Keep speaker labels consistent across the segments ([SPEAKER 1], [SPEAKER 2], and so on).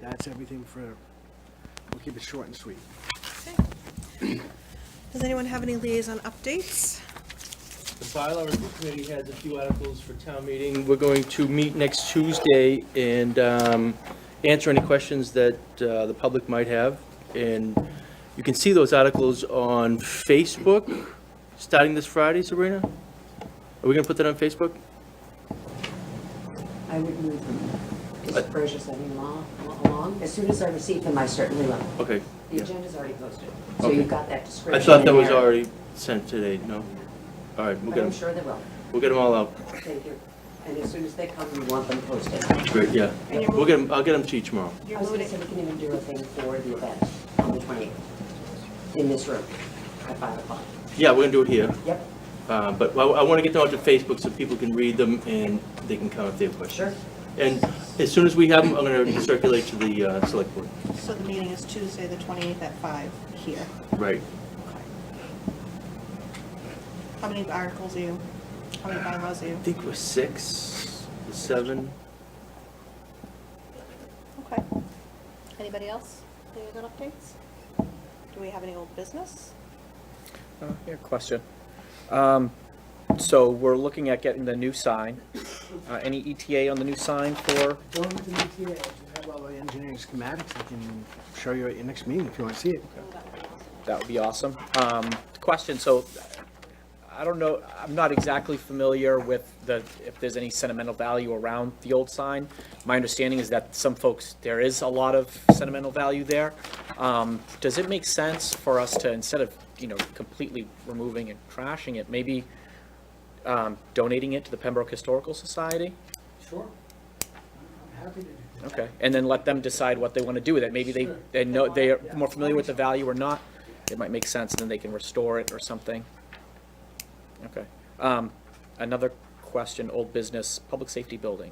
[SPEAKER 1] That's everything for, we'll keep it short and sweet.
[SPEAKER 2] Okay. Does anyone have any liaison updates?
[SPEAKER 3] The bylaw review committee has a few articles for town meeting. We're going to meet next Tuesday and um, answer any questions that uh, the public might have. And you can see those articles on Facebook, starting this Friday, Sabrina? Are we going to put that on Facebook?
[SPEAKER 4] I would move them, just Persia sent me along, along. As soon as I receive them, I certainly will.
[SPEAKER 3] Okay.
[SPEAKER 4] The
[SPEAKER 3] yeah.
[SPEAKER 4] agenda's already posted, so
[SPEAKER 3] Okay.
[SPEAKER 4] you've got that description.
[SPEAKER 3] I thought that
[SPEAKER 4] in
[SPEAKER 3] was
[SPEAKER 4] there.
[SPEAKER 3] already sent today, no? All right, we'll
[SPEAKER 4] But
[SPEAKER 3] get
[SPEAKER 4] I'm
[SPEAKER 3] them,
[SPEAKER 4] sure they will.
[SPEAKER 3] we'll get them all out.
[SPEAKER 4] Thank you. And as soon as they come, we want them posted.
[SPEAKER 3] Great, yeah.
[SPEAKER 2] And you're
[SPEAKER 3] We'll get them, I'll get them to you tomorrow.
[SPEAKER 4] I
[SPEAKER 2] You're
[SPEAKER 4] was gonna
[SPEAKER 2] voting,
[SPEAKER 4] say, we can even do a thing for the event on the 28th in this room at 5 o'clock.
[SPEAKER 3] Yeah, we're going to do it here.
[SPEAKER 4] Yep,
[SPEAKER 3] Uh, But I- I want to get them out to Facebook so people can read them and they can comment if they have
[SPEAKER 4] sure.
[SPEAKER 3] questions. And as soon as we have them, I'm going to circulate to the uh, select board.
[SPEAKER 2] so the meeting is Tuesday, the 28th at 5 here.
[SPEAKER 3] Right.
[SPEAKER 2] Okay. How many articles are you, how many bylaws are you?
[SPEAKER 3] I think we're six, seven.
[SPEAKER 2] Okay. Anybody else? Any good updates? Do we have any old business?
[SPEAKER 5] Uh, Yeah, question. Um, So we're looking at getting the new sign. Uh, Any ETA on the new sign for,
[SPEAKER 1] Go over to the ETA, I just have all the engineering schematics, I can show you at your next meeting if you want to see it.
[SPEAKER 5] that would be awesome. Um, Question, so I don't know, I'm not exactly familiar with the, if there's any sentimental value around the old sign. My understanding is that some folks, there is a lot of sentimental value there. Um, Does it make sense for us to, instead of, you know, completely removing and trashing it, maybe um, donating it to the Pembroke Historical Society?
[SPEAKER 1] Sure. Happy to do that.
[SPEAKER 5] Okay, and then let them decide what they want to do with it. Maybe they,
[SPEAKER 1] Sure.
[SPEAKER 5] they know, they are
[SPEAKER 1] Yeah.
[SPEAKER 5] more familiar with the value or not. It might make sense, then they can restore it or something. Okay. Um, Another question, old business, public safety building.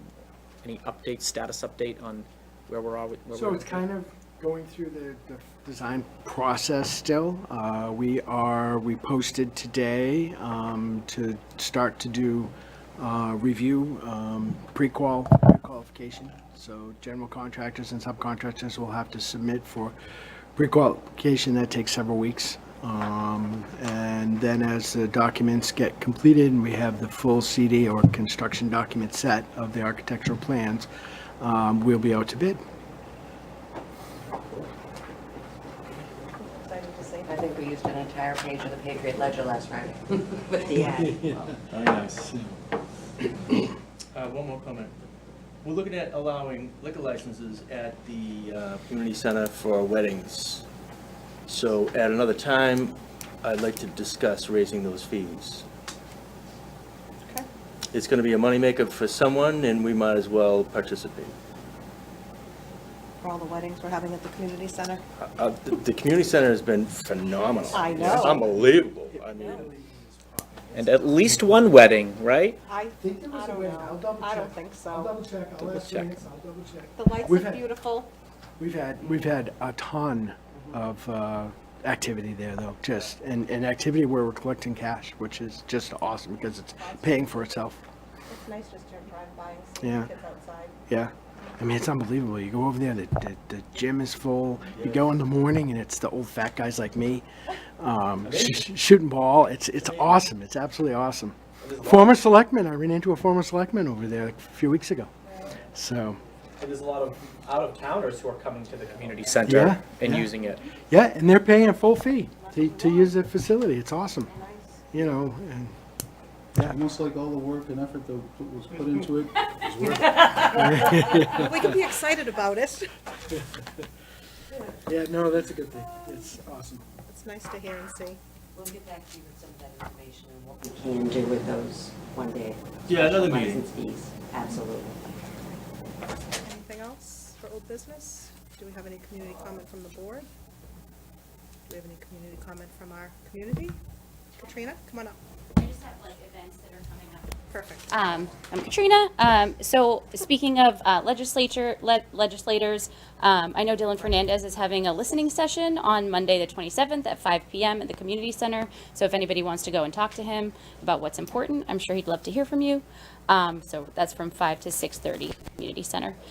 [SPEAKER 5] Any update, status update on where we're at?
[SPEAKER 1] So it's kind of going through the, the design process still. Uh, we are, we posted today, um, to start to do, uh, review, um, pre-qual, qualification. So general contractors and subcontractors will have to submit for pre-qualification. That takes several weeks. Um, and then as the documents get completed and we have the full CD or construction document set of the architectural plans, um, we'll be out to bid.
[SPEAKER 2] Excited to see.
[SPEAKER 4] I think we used an entire page of the Patriot Ledger last Friday with the ad.
[SPEAKER 3] Very nice. Uh, One more comment. We're looking at allowing liquor licenses at the uh, community center for weddings. So at another time, I'd like to discuss raising those fees.
[SPEAKER 2] Okay.
[SPEAKER 3] It's going to be a moneymaker for someone, and we might as well participate.
[SPEAKER 2] For all the weddings we're having at the community center.
[SPEAKER 3] Uh, The the community center has been phenomenal.
[SPEAKER 2] I know.
[SPEAKER 3] It's Unbelievable. I mean,
[SPEAKER 5] And at least one wedding, right?
[SPEAKER 2] I,
[SPEAKER 1] think there was
[SPEAKER 2] I
[SPEAKER 1] a
[SPEAKER 2] don't
[SPEAKER 1] way. I'll
[SPEAKER 2] know.
[SPEAKER 1] double
[SPEAKER 2] I don't
[SPEAKER 1] check.
[SPEAKER 2] think
[SPEAKER 1] I'll
[SPEAKER 2] so.
[SPEAKER 1] double check, I'll
[SPEAKER 5] Double
[SPEAKER 1] ask
[SPEAKER 5] check.
[SPEAKER 1] Lance, I'll double check.
[SPEAKER 2] The lights
[SPEAKER 1] We've
[SPEAKER 2] are
[SPEAKER 1] had-
[SPEAKER 2] beautiful.
[SPEAKER 1] We've had, we've had a ton of uh, activity there though, just, and, and activity where we're collecting cash, which is just awesome because it's paying for itself,
[SPEAKER 2] It's nice just to drive by and
[SPEAKER 1] see the Yeah.
[SPEAKER 2] kids outside.
[SPEAKER 1] yeah. I mean, it's unbelievable. You go over there, the, the, the gym is full. You go in the morning and it's the old fat guys like me um, sh- shooting ball. It's, it's awesome. It's absolutely awesome. Former selectman, I ran into a former selectman over there a few weeks ago. So,
[SPEAKER 5] There's a lot of out-of-towners who are coming to the community
[SPEAKER 1] Yeah,
[SPEAKER 5] center and
[SPEAKER 1] yeah.
[SPEAKER 5] using it.
[SPEAKER 1] yeah, and they're paying a full fee to, to use the facility. It's awesome.
[SPEAKER 2] Nice.
[SPEAKER 1] you know, and
[SPEAKER 6] Almost like all the work and effort that was put into it was worth it.
[SPEAKER 2] We can be excited about it.
[SPEAKER 1] yeah, no, that's a good thing. It's awesome.
[SPEAKER 2] It's nice to hear and see.
[SPEAKER 4] We'll get back to you with some of that information and what we can do with those one day.
[SPEAKER 3] Yeah, another meeting.
[SPEAKER 4] License fees, absolutely.
[SPEAKER 2] Anything else for old business? Do we have any community comment from the board? Do we have any community comment from our community? Katrina, come on up.
[SPEAKER 7] I just have like events that are coming up.
[SPEAKER 2] Perfect.
[SPEAKER 7] Um, I'm Katrina. Um, so speaking of uh, legislature, le- legislators, um, I know Dylan Fernandez is having a listening session on Monday, the 27th at 5 p.m. at the community center. So if anybody wants to go and talk to him about what's important, I'm sure he'd love to hear from you. Um, so that's from 5 to 6:30, community center.